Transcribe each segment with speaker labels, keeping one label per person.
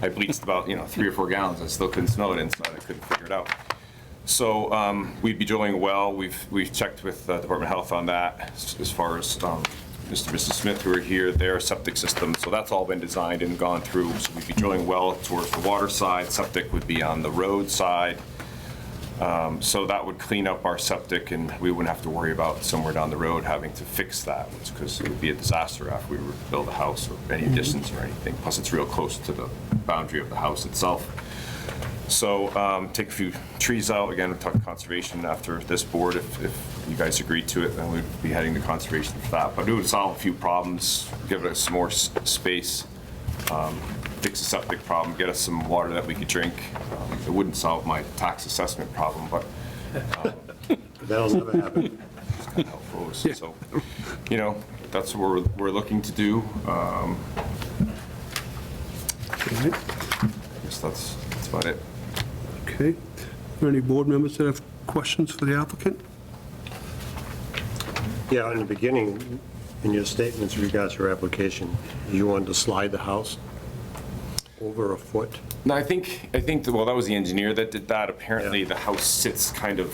Speaker 1: I bleached about, you know, three or four gallons. I still couldn't smell it inside. I couldn't figure it out. So um, we'd be drilling a well. We've, we've checked with uh, Department of Health on that s- as far as um, Mr. and Mrs. Smith who are here, their septic system. So that's all been designed and gone through. So we'd be drilling a well towards the water side. Septic would be on the road side. Um, So that would clean up our septic and we wouldn't have to worry about somewhere down the road having to fix that. Because it would be a disaster after we were to build a house or any additions or anything. Plus, it's real close to the boundary of the house itself. So um, take a few trees out, again, we'll talk conservation after this board, if, if you guys agree to it, then we'd be heading to conservation for that. But it would solve a few problems, give us more s- space, um, fix the septic problem, get us some water that we could drink. Um, It wouldn't solve my tax assessment problem, but
Speaker 2: That'll never happen.
Speaker 1: it's kind of helpful. So, you know, that's what we're, we're looking to do. Um,
Speaker 3: Right,
Speaker 1: I guess that's, that's about it.
Speaker 3: Okay. Are there Any board members that have questions for the applicant?
Speaker 2: Yeah, in the beginning, in your statements with regards to your application, you wanted to slide the house over a foot.
Speaker 1: No, I think, I think, well, that was the engineer that did that. Apparently,
Speaker 2: Yeah.
Speaker 1: the house sits kind of,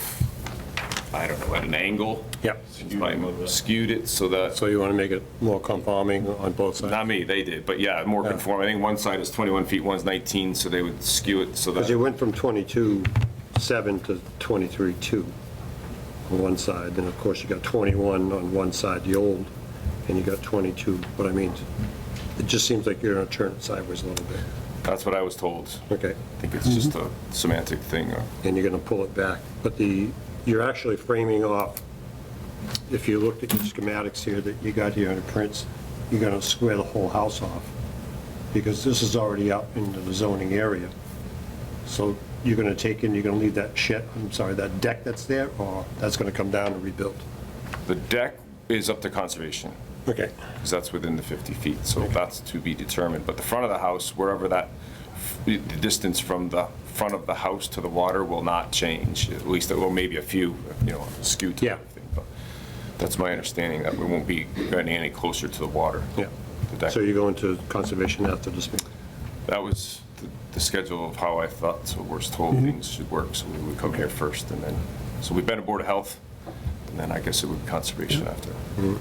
Speaker 1: I don't know, at an angle.
Speaker 2: Yep.
Speaker 1: So you might have Skewed it so that,
Speaker 2: So you want to make it more conforming on both sides?
Speaker 1: not me, they did, but yeah, more
Speaker 2: Yeah.
Speaker 1: conform. I think one side is 21 feet, one's 19, so they would skew it so
Speaker 2: Because you
Speaker 1: that,
Speaker 2: went from 22.7 to 23.2 on one side, then of course you got 21 on one side, the old, and you got 22, but I mean, it just seems like you're going to turn it sideways a little bit.
Speaker 1: that's what I was told.
Speaker 2: Okay.
Speaker 1: I think it's just a semantic thing. uh,
Speaker 2: and you're going to pull it back. But the, you're actually framing off, if you looked at your schematics here that you got here in prints, you're going to square the whole house off, because this is already out into the zoning area. So you're going to take in, you're going to leave that shed, I'm sorry, that deck that's there, or that's going to come down and rebuild?
Speaker 1: The deck is up to conservation,
Speaker 2: Okay.
Speaker 1: because that's within the 50 feet, so that's to be determined. But the front of the house, wherever that, the the distance from the front of the house to the water will not change, at least, well, maybe a few, you know, skewed to
Speaker 2: Yeah.
Speaker 1: everything. but That's my understanding, that we won't be getting any closer to the water.
Speaker 2: Yeah.
Speaker 1: The deck-
Speaker 2: So you're going to conservation after this meeting?
Speaker 1: That was the- the schedule of how I thought, so we're
Speaker 2: Mm-hmm.
Speaker 1: told things should work, so we would come here first, and then, so we've been to Board of Health, and then I guess it would be Conservation after.
Speaker 2: Mm-hmm.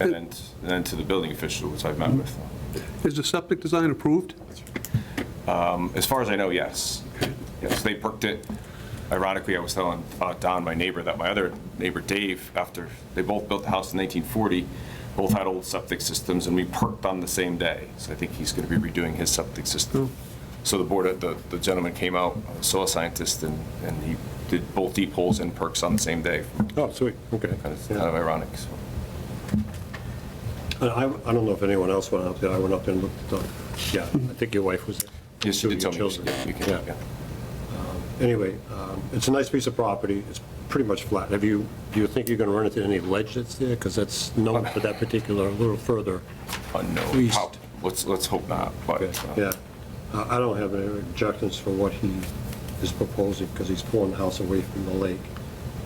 Speaker 1: And then, and then to the building official, which I've met with. uh,
Speaker 3: Is the septic design approved?
Speaker 1: As far as I know, yes. Yes, they perked it. Ironically, I was telling uh, Don, my neighbor, that my other neighbor Dave, after, they both built the house in 1940, both had old septic systems, and we perked on the same day. So I think he's going to be redoing his septic system.
Speaker 2: Hmm.
Speaker 1: So the board, the the gentleman came out, uh, a soil scientist, and, and he did both deep holes and perks on the same day.
Speaker 2: Oh, sweet, okay.
Speaker 1: Kind of kind
Speaker 2: Yeah.
Speaker 1: of ironic, so.
Speaker 2: And I, I don't know if anyone else went up there, I went up there and looked at the, yeah, I think your wife was there.
Speaker 1: Yes, she did
Speaker 2: Two
Speaker 1: tell
Speaker 2: of
Speaker 1: me.
Speaker 2: your
Speaker 1: Yeah, you
Speaker 2: children.
Speaker 1: can- yeah.
Speaker 2: Anyway, um, it's a nice piece of property, it's pretty much flat. Have you, do you think you're going to run into any ledge that's there? Because that's known for that particular, a little further.
Speaker 1: Unknown.
Speaker 2: Please.
Speaker 1: Prob- Let's, let's hope not, but. uh,
Speaker 2: Yeah, Uh, I don't have any objections for what he is proposing, because he's pulling the house away from the lake,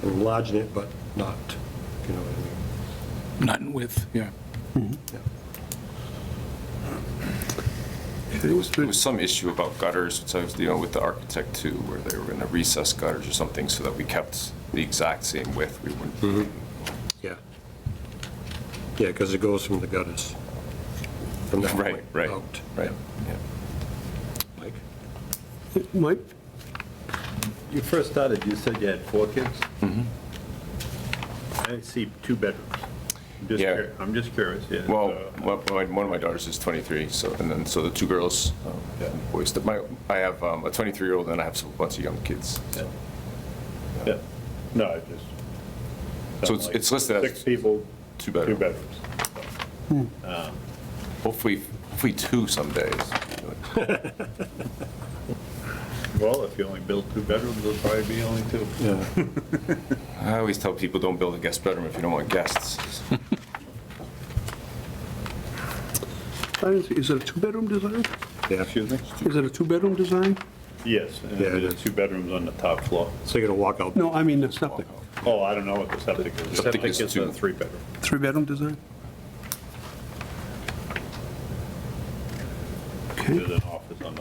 Speaker 2: enlarging it, but not, if you know what I mean.
Speaker 4: Not in width, yeah.
Speaker 1: There was, there was some issue about gutters, which I was dealing with the architect too, where they were going to recess gutters or something so that we kept the exact same width. We wouldn't,
Speaker 2: Yeah. Yeah, because it goes from the gutters. From that
Speaker 1: Right,
Speaker 2: point
Speaker 1: right,
Speaker 2: out.
Speaker 1: right, yeah.
Speaker 2: Mike?
Speaker 3: Mike?
Speaker 5: You first started, you said you had four kids?
Speaker 1: Mm-hmm.
Speaker 5: I see two bedrooms. I'm just
Speaker 1: Yeah.
Speaker 5: cur- I'm just curious, yeah.
Speaker 1: Well,
Speaker 5: so-
Speaker 1: one one of my- one of my daughters is 23, so, and then, so the two girls, um,
Speaker 5: Yeah.
Speaker 1: boys, that my, I have um, a 23-year-old and I have a bunch of young kids.
Speaker 5: Yeah. No, I just.
Speaker 1: So it's- it's listed as
Speaker 5: Six people.
Speaker 1: two bedroom.
Speaker 5: Two bedrooms.
Speaker 1: Hopefully, hopefully two some days.
Speaker 5: Well, if you only build two bedrooms, there'll probably be only two.
Speaker 1: I always tell people, don't build a guest bedroom if you don't want guests.
Speaker 3: Is it a two-bedroom design?
Speaker 2: Yeah,
Speaker 5: Excuse me?
Speaker 3: Is it a two-bedroom design?
Speaker 5: Yes, and
Speaker 2: Yeah, it
Speaker 5: there's
Speaker 2: is.
Speaker 5: two bedrooms on the top floor.
Speaker 2: so you're going to walk out.
Speaker 3: No, I mean the septic.
Speaker 5: Oh, I don't know what the septic is.
Speaker 1: Septic is two.
Speaker 5: a three bedroom.
Speaker 3: Three-bedroom design? Okay.
Speaker 5: There's an